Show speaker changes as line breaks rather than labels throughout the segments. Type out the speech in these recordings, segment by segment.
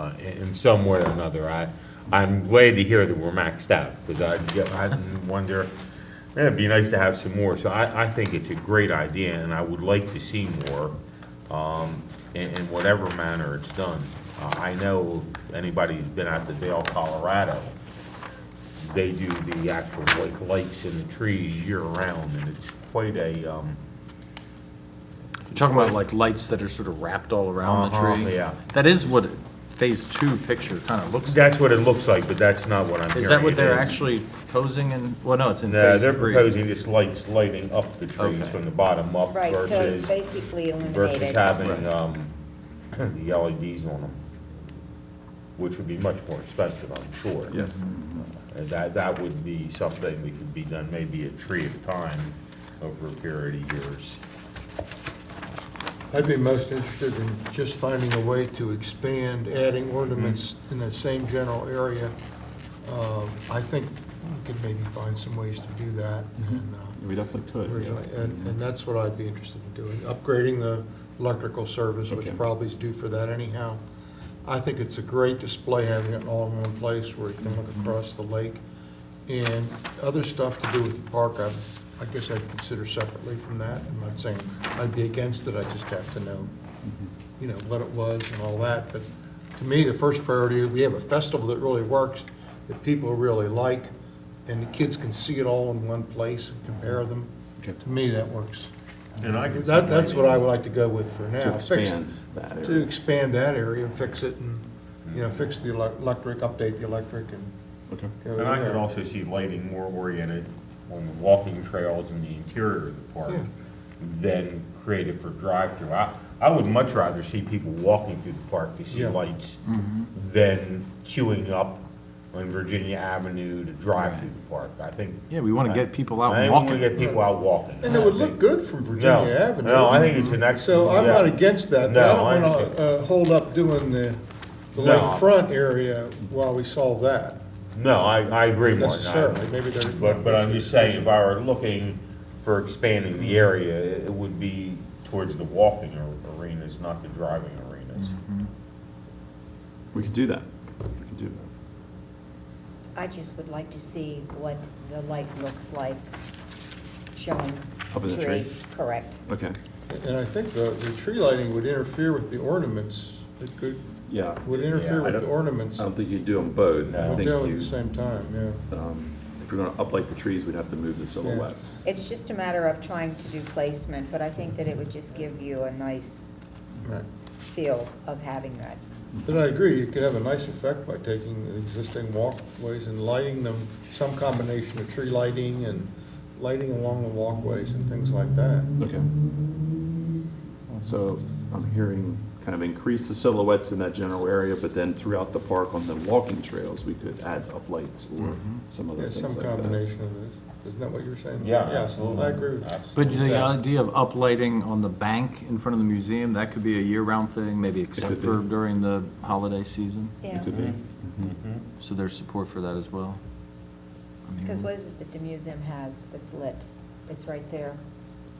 uh, in in some way or another. I, I'm glad to hear that we're maxed out, because I, get- I wonder, eh, it'd be nice to have some more. So I, I think it's a great idea, and I would like to see more, um, in, in whatever manner it's done. Uh, I know if anybody's been out to Vail, Colorado, they do the actual like lights and the trees year-round, and it's quite a, um,
You're Talking about like lights that are sort of wrapped all around
Uh-huh,
the tree?
yeah.
That is what phase two picture kind of looks like.
that's what it looks like, but that's not what I'm hearing.
Is that what
It
they're
is-
actually posing in, well, no, it's in
No,
phase
they're
three.
proposing just lights lighting up the trees
Okay.
from the bottom up
Right, to
versus,
basically eliminate
versus
it.
having,
Right.
um, the LEDs on them, which would be much more expensive, I'm sure.
Yes.
And that, that would be something that could be done maybe a tree at a time over a period of years.
I'd be most interested in just finding a way to expand, adding ornaments in that same general area. Um, I think we could maybe find some ways to do that, and, uh,
Mm-hmm. We definitely could,
originally-
yeah.
and, and that's what I'd be interested in doing, upgrading the electrical service, which
Okay.
probably is due for that anyhow. I think it's a great display, having it all in one place where you can look
Mm-hmm.
across the lake. And other stuff to do with the park, I, I guess I'd consider separately from that. I'm not saying I'd be against it, I just have to know,
Mm-hmm.
you know, what it was and all that. But to me, the first priority, we have a festival that really works, that people really like, and the kids can see it all in one place and compare them.
Okay.
To me, that works.
And I could
That, that's what I would like to go with for now.
To
Fix-
expand that
To
area.
expand that area and fix it and, you know, fix the elec- electric, update the electric and.
Okay.
go
And I could
there.
also see lighting more oriented on the walking trails in the interior of the park
Yeah.
than created for drive-through. I, I would much rather see people walking through the park to see
Yeah.
lights
Mm-hmm.
than queuing up on Virginia Avenue to drive through the park. I think,
Yeah, we want to get people out
I think we
walking.
get people out walking.
And it would look good from
No,
Virginia Avenue.
No, I think it's an excellent.
So I'm not
yeah.
against that, but I
No, I
don't want
understand.
to hold up doing the, the
No.
lakefront area while we solve that
No, I, I agree, Martin. I-
necessarily. Maybe there's.
But, but I'm just saying, if I were looking for expanding the area, it it would be towards the walking ar- arenas, not the driving arenas.
We could do that. We could do that.
I just would like to see what the light looks like showing
Up in the
tree.
tree?
Correct.
Okay,
And I think the, the tree lighting would interfere with the ornaments. It could,
yeah.
would
Yeah, I
interfere with the
don't-
ornaments.
I don't think you'd do them both. I
No.
think
Down at the
you, um,
same time, yeah.
if you're gonna uplight the trees, we'd have to move the silhouettes.
It's just a matter of trying to do placement, but I think that it would just give you a nice
Right.
feel of having that.
But I agree, you could have a nice effect by taking the existing walkways and lighting them, some combination of tree lighting and lighting along the walkways and things like that.
Okay. So I'm hearing kind of increase the silhouettes in that general area, but then throughout the park on the walking trails, we could add uplights or some
Mm-hmm. Yeah,
other things
some
like that.
combination of this. Isn't that what you're saying?
Yeah, absolutely.
I agree with that.
But
Absolutely.
the idea of uplighting on the bank in front of the museum, that could be a year-round thing, maybe except
could be.
for during the holiday season.
It
Yeah,
could be.
So there's support for that as well. I mean,
because what is it that the museum has that's lit? It's right there,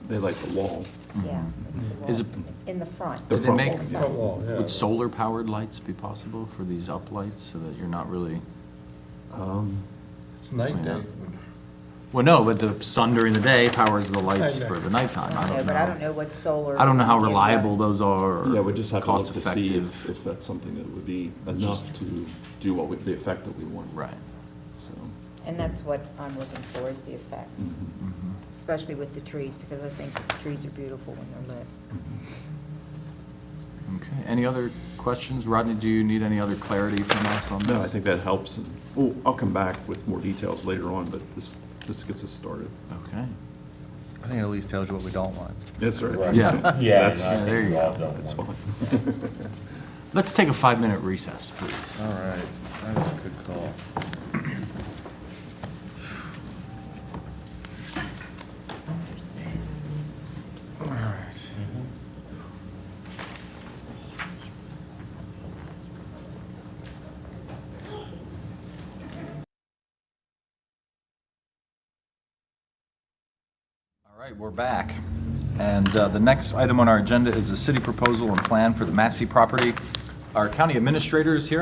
They like the wall.
yeah. it's the
Is
wall.
it-
In the front.
Mm-hmm. The
Did they
front
make,
wall, yeah.
Front wall, yeah.
would solar-powered lights be possible for these uplights so that you're not really?
Um,
It's night
Yeah.
day.
Well, no, but the sun during the day powers the lights
I know.
for the nighttime. I
Yeah,
don't
But I don't
know.
know what solar.
I don't know how
is in the-
reliable those are
Yeah, we just
or
have to look to see if,
cost-effective.
if that's something that would be enough to do what we, the effect that we want.
Right.
So,
And that's what I'm looking for, is the effect, especially with the trees, because I think the trees are beautiful when they're lit.
Okay, any other questions? Rodney, do you need any other clarity from us on this?
no, I think that helps. and Well, I'll come back with more details later on, but this, this gets us started.
Okay,
I think it at least tells you what we don't want.
That's
Right.
right.
yeah.
Yeah,
That's-
I think
there you
we all
go.
don't
That's
want-
fine.
Let's take a five-minute recess, please.
All right, that was a good call. All right.
All right, we're back. And uh, the next item on our agenda is the city proposal and plan for the Massey property our county administrator is here.